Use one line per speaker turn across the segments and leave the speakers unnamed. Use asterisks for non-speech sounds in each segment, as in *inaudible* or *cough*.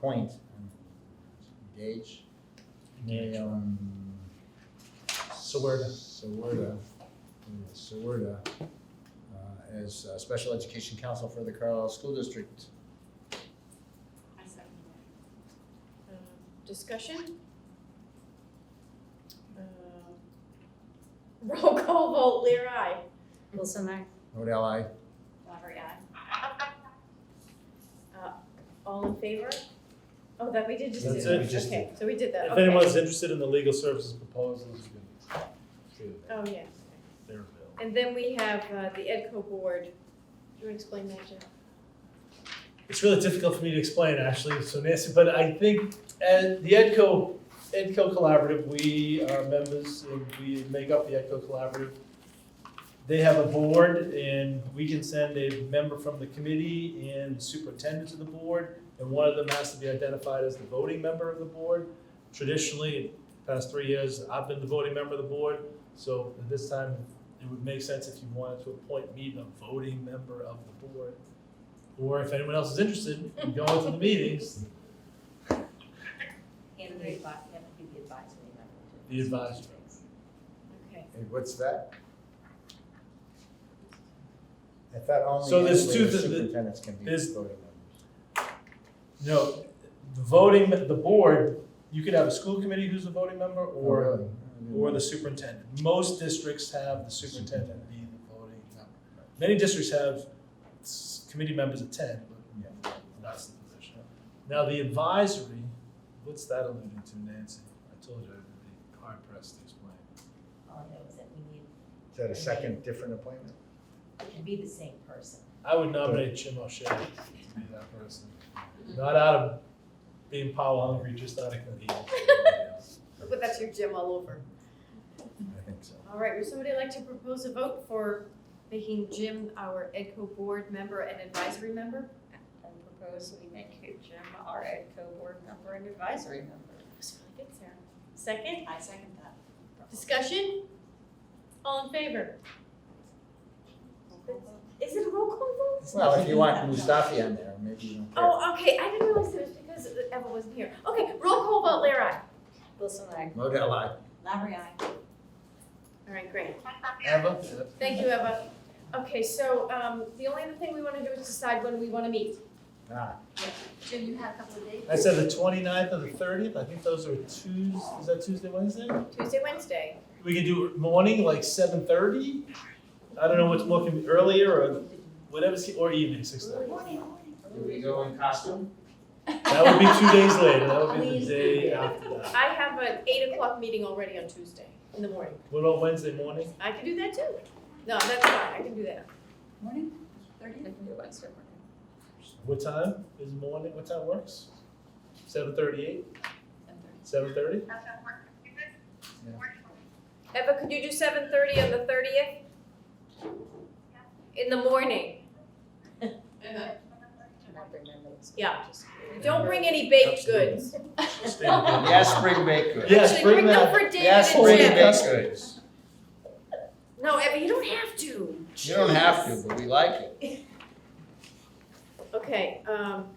point and Gage.
Yeah.
Um,
Sawerda.
Sawerda, yeah, Sawerda, uh, as uh, Special Education Counsel for the Carlisle School District.
I second that.
Um, Discussion? Um, *laughs* Roll call vote, Lear, aye.
Wilson, I.
Odell, I.
Lottery aye.
All in favor? Oh, that we did just do.
That's
that.
it, we just
Okay, so we did that,
If
okay.
anyone's interested in the legal services proposals, you can see
Oh, yeah.
they're available.
And then we have uh, the EDCO board. Do you want to explain that, Jeff?
It's really difficult for me to explain, actually, so Nancy, but I think at the EDCO, EDCO Collaborative, we are members, and we make up the EDCO Collaborative. They have a board, and we can send a member from the committee and superintendent to the board, and one of them has to be identified as the voting member of the board. Traditionally, in the past three years, I've been the voting member of the board, so at this time, it would make sense if you wanted to appoint me the voting member of the board. Or if anyone else is interested, in going to the meetings,
And the advi- that would be the advisory member. too.
The advisory.
Okay.
Hey, what's that? I thought only.
So there's
actually
two-
the
the- the-
Superintendents can be
there's-
voting
no, the voting, the board, you could have a school committee who's a voting member or,
members.
or the superintendent. Most districts have the superintendent be the voting member. Many districts have s- committee members of ten, but that's the position. Now, the advisory, what's that alluding to, Nancy? I told you I'd be hard pressed to explain.
All I know is that we need,
Is that a second different appointment?
it can be the same person.
I would nominate Jim O'Shea to be that person. Not out of being power hungry, just out of convenience. *laughs*
But that's your gym all over.
I think so.
All right, would somebody like to propose a vote for making Jim our EDCO board member and advisory member?
I propose we make Jim our EDCO board member and advisory member.
That's really good, Sarah. Second,
I second that.
discussion? All in favor? Is it a roll call vote?
Well, if you want Mustafi on there, maybe you don't care.
Oh, okay, I didn't realize it was because Evan wasn't here. Okay, roll call vote, Lara.
Wilson, I.
Modell, I.
Lottery aye.
All right, great.
Eva?
Thank you, Eva. Okay, so, um, the only other thing we wanna do is decide when we wanna meet.
Ah,
Jim, you have a couple of days?
I said the 29th and the thirtieth, I think those are Tues, is that Tuesday, Wednesday?
Tuesday, Wednesday.
We could do it morning, like seven thirty? I don't know what's looking earlier or whatever's, or evening, six thirty.
Morning.
do we go in costume?
That would be two
*laughs*
days later, that would be the day after that.
I have an eight o'clock meeting already on Tuesday in the morning.
What about Wednesday morning?
I can do that too. No, that's fine, I can do that.
Morning,
I
thirty?
can do Wednesday morning.
What time is morning, what time works? Seven thirty-eight, seven thirty?
Eva, could you do seven thirty on the thirtieth? In the morning.
I'm not bringing my notes.
Yeah.
Just-
Don't bring any baked goods.
Yes, spring bake goods.
Yes,
Actually,
bring
them
that.
for
Yes,
David
spring
and Jim.
bake goods.
No, Eva, you don't have to.
You don't have to, but we like it.
Okay, um.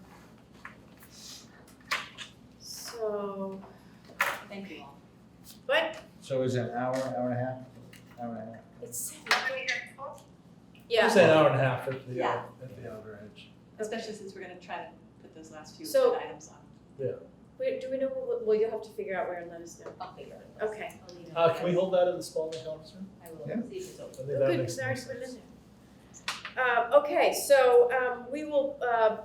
So,
Thank you all.
what?
So is it an hour, hour and a half? Hour and a half?
It's seven. Yeah,
Say an hour and a half at the, uh,
Yeah.
at the outer edge.
Especially since we're gonna try to put those last few
So-
items on.
we, do we know, what- well, you'll have to figure out where and let us know.
I'll figure it out.
Okay.
I'll leave it.
Uh, can we hold that in the Spalding conference room?
I
Yeah.
will, see if it's open.
I think
Oh,
that
Good,
makes
because I already
more
put it in
sense.
there. Um, okay, so, um, we will, uh,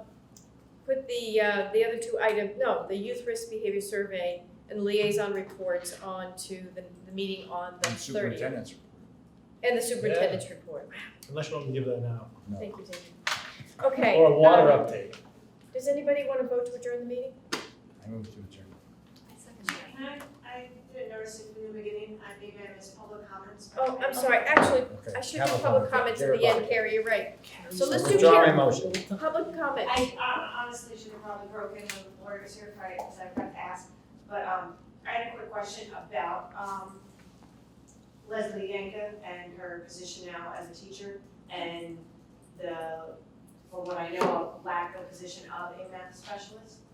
put the, uh, the other two item, no, the youth risk behavior survey and liaison reports on to the, the meeting on the
And
thirtieth.
superintendent's report.
And the superintendent's report.
Unless you want me to give that now.
No.
Thank you, David. Okay.
Or a water
um,
update.
Does anybody want to vote to adjourn the meeting?
I move to adjourn.
Can I, I didn't notice it from the beginning, I maybe I missed public comments.
Oh, I'm sorry, actually,
Okay.
I should
Have
do
a
public
comment.
comments at
Here,
the end,
Bobby.
Carrie, you're right. So let's do
Withdraw my
Carrie,
motion.
public comment.
I hon- honestly should have probably broken when the lawyer was here Friday, because I forgot to ask, but, um, I had a quick question about, um, Leslie Yanka and her position now as a teacher, and the, from what I know, lack of position of a math specialist.